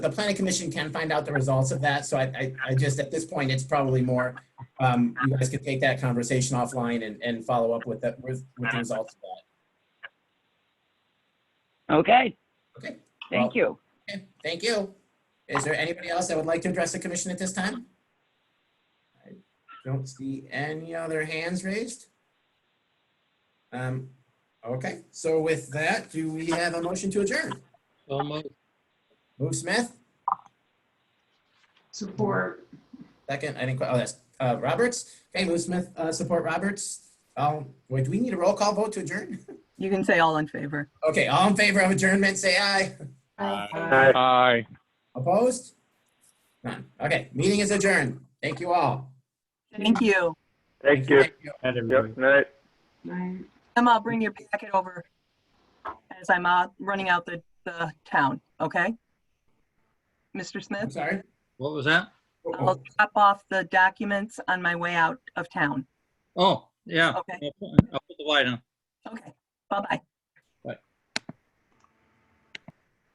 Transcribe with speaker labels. Speaker 1: the planning commission can find out the results of that. So I, I, I just, at this point, it's probably more, um, you guys could take that conversation offline and, and follow up with the, with, with the results of that.
Speaker 2: Okay.
Speaker 1: Okay.
Speaker 2: Thank you.
Speaker 1: Okay, Thank you. Is there anybody else that would like to address the commission at this time? I Don't see any other hands raised. Um, okay, so with that, do we have a motion to adjourn?
Speaker 3: So moved.
Speaker 1: Move Smith,
Speaker 4: Support.
Speaker 1: second, I didn't, quite- oh, that's, uh, Roberts. Okay, move Smith, uh, support Roberts. Um, wait, do we need a roll call vote to adjourn?
Speaker 5: You can say all in favor.
Speaker 1: Okay, all in favor of adjournment, say aye.
Speaker 6: Aye.
Speaker 1: Opposed? None. Okay, meeting is adjourned. Thank you all.
Speaker 5: Thank you.
Speaker 6: Thank you.
Speaker 1: Thank you.
Speaker 6: Yep, night.
Speaker 4: Aye.
Speaker 5: Emma, I'll bring your packet over as I'm out, running out the, the town, okay? Mr.
Speaker 1: I'm
Speaker 5: Smith,
Speaker 1: sorry.
Speaker 3: What was that?
Speaker 5: I'll drop off the documents on my way out of town,
Speaker 3: Oh, yeah.
Speaker 5: okay?
Speaker 3: I'll put I'll put the light on.
Speaker 5: Okay, bye-bye.